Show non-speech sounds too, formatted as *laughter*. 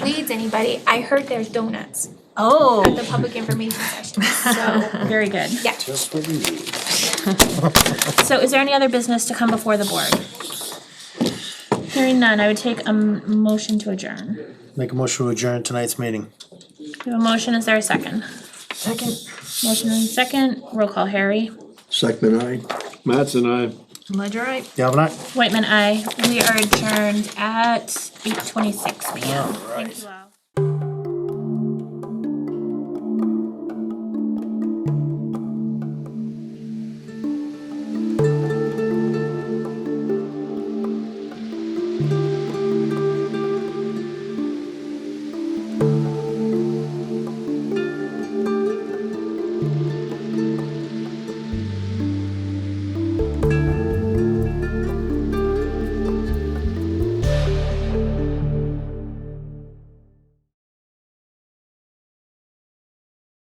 anybody, I heard there's donuts at the Oh, public information session, so, *laughs* very good. yeah. Just for you. So is there any other business to come before the board? Hearing none, I would take a m- motion to adjourn. Make a motion to adjourn tonight's meeting. We have a motion, is there a second? Second. Motion and second, roll call Harry. Second I. Matt's and I. Ledger, I. Galvin, aye? Whitman, I. We are adjourned at eight twenty-six PM. Thank you all.